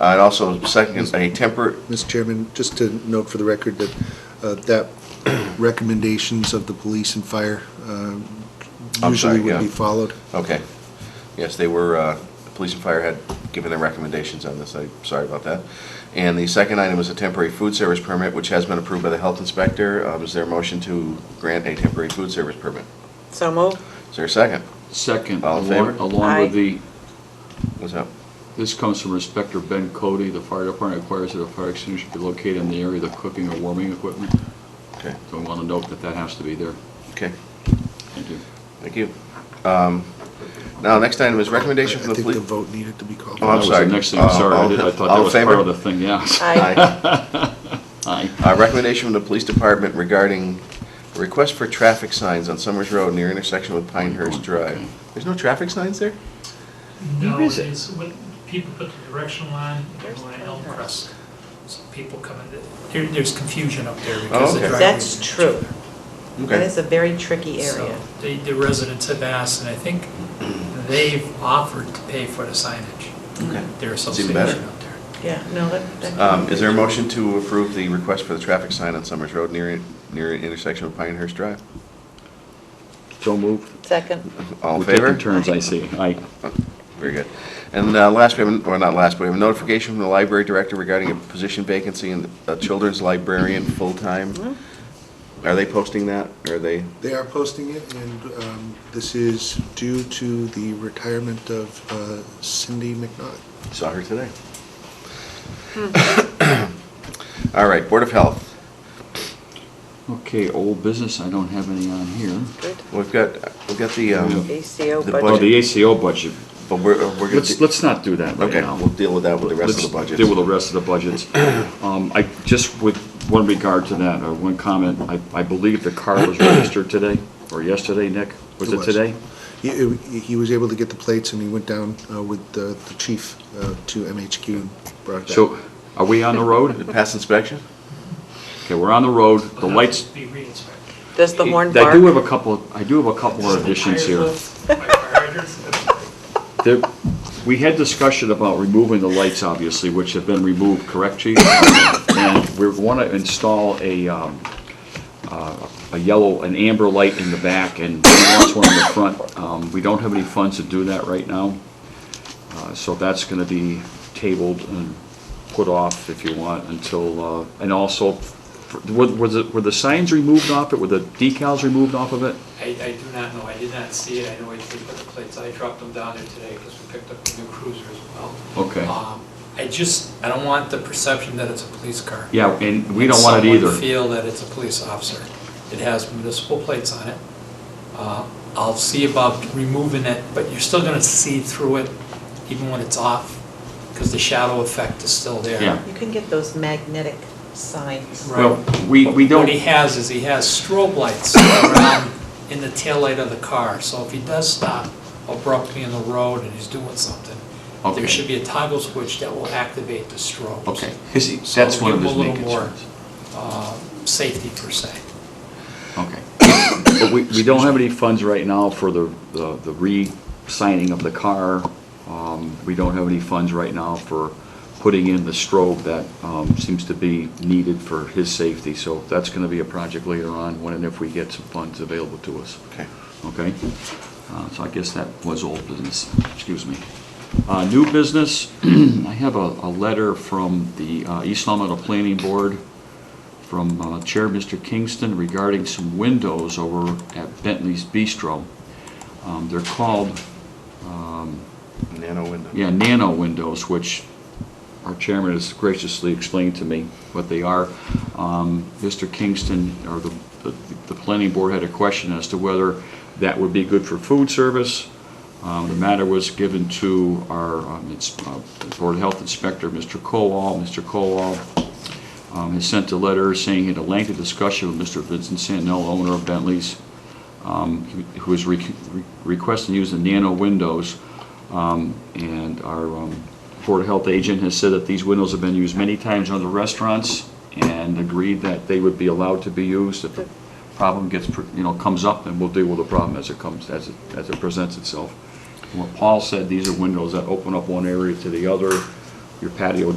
Uh, And also, second, a temper, Mr. Chairman, just to note for the record that, uh, that recommendations of the police and fire um, I'm sorry, usually would yeah. be followed. okay. Yes, they were, uh, police and fire had given their recommendations on this, I'm sorry about that. And the second item is a temporary food service permit, which has been approved by the health inspector. Um, Is there a motion to grant a temporary food service permit? So moved. Is there a second? Second, All in along favor? along with Aye. the, What's up? this comes from Inspector Ben Cody, the fire department requires that a fire extinguisher be located in the area of the cooking or warming equipment. Okay, So I want to note that that has to be there. okay, Thank you. thank you. Um, Now, next item is recommendation from I the think the police. vote needed to be called. Oh, I'm That was sorry. the next thing, Uh, I'm sorry, I all- did- I thought all that in was favor? part of the thing, yes. Aye. Aye. Uh, Recommendation from the police department regarding request for traffic signs on Summers Road near intersection with Pinehurst Drive. There's no traffic signs there? No, There is it a- is, when people put the directional line, they're There's going the Elm house. Crest. So people come in, there, there's confusion up there Oh, because the okay. driveways. That's true. That Okay, is a very tricky So, area. The, the residents have asked, and I think they've offered to pay for the signage, okay. their It's even better. association up there. Yeah, no, that, that. Um, Is there a motion to approve the request for the traffic sign on Summers Road near, near intersection with Pinehurst Drive? So moved. Second. All in We're taking favor? Oh, turns, I see. Aye. Very good. And uh, last, we have, or not last, but we have a notification from the library director regarding a position vacancy in a children's librarian full-time. Mm-hmm. Are they posting that? Are they, They are posting it, and um, this is due to the retirement of uh, Cindy McNaught. saw her today. Hmm. All right, Board of Health. Okay, old business, I don't have any on here. Good. We've got, we've got the, um, ACO The Oh, budget. the ACO budget. but we're, we're going Let's, to, let's not do that right okay, now. we'll deal with that with the rest of the Let's budget. Deal with the rest of the budgets. Um, I, just with one regard to that, or one comment, I, I believe the car was registered today, or yesterday, Nick? Was It it was. today? He, he was able to get the plates, and he went down uh, with the the chief uh, to MHQ and brought that. So, are we on the road? Pass inspection? Okay, we're on the road, the It'll have lights. to Be re-inspected. Does the horn bark? I do have a couple, I do have a couple more additions here. Fire hydrants. There, we had discussion about removing the lights, obviously, which have been removed, correct, chief? And we want to install a, um, uh, a yellow, an amber light in the back and he wants one in the front. Um, we don't have any funds to do that right now. Uh, so that's going to be tabled and put off, if you want, until, uh, and also, f- were, was it, were the signs removed off it? Were the decals removed off of it? I, I do not know, I did not see it, I know I did put the plates, I dropped them down there today because we picked up a new cruiser as well. Okay. Um, I just, I don't want the perception that it's a police car. Yeah, and we don't want it either. Someone feel that it's a police officer. It has municipal plates on it. Uh, I'll see about removing it, but you're still gonna see through it even when it's off, because the shadow effect is still there. Yeah. You can get those magnetic signs. Right. Well, we, we don't. What he has is he has strobe lights around in the taillight of the car, so if he does stop abruptly in the road and he's doing something, Okay. there should be a toggle switch that will activate the strobes. Okay, his, that's So one of give his him a main little more. concerns. Uh, Safety per se. Okay. But we, we don't have any funds right now for the, the the re-signing of the car. Um, we don't have any funds right now for putting in the strobe that, um, seems to be needed for his safety. So that's gonna be a project later on, when and if we get some funds available to us, Okay. okay? Uh, so I guess that was old business, excuse me. Uh, new business, I have a, a letter from the, uh, East Long Meadow Planning Board from uh, Chair Mr. Kingston regarding some windows over at Bentley's Bistro. Um, They're called, um, Nano window. yeah, nano windows, which our chairman has graciously explained to me what they are. Um, Mr. Kingston, or the, the- the planning board had a question as to whether that would be good for food service. Um, The matter was given to our um, ins- uh, Board of Health Inspector, Mr. Colwall. Mr. Colwall um, has sent a letter saying he had a lengthy discussion with Mr. Vincent Santinello, owner of Bentley's, um, who is re- re- requesting use the nano windows. Um, And our um, Board of Health agent has said that these windows have been used many times in other restaurants and agreed that they would be allowed to be used if the problem gets, pr- you know, comes up, and we'll deal with the problem as it comes, as it, as it presents itself. And What Paul said, these are windows that open up one area to the other. your patio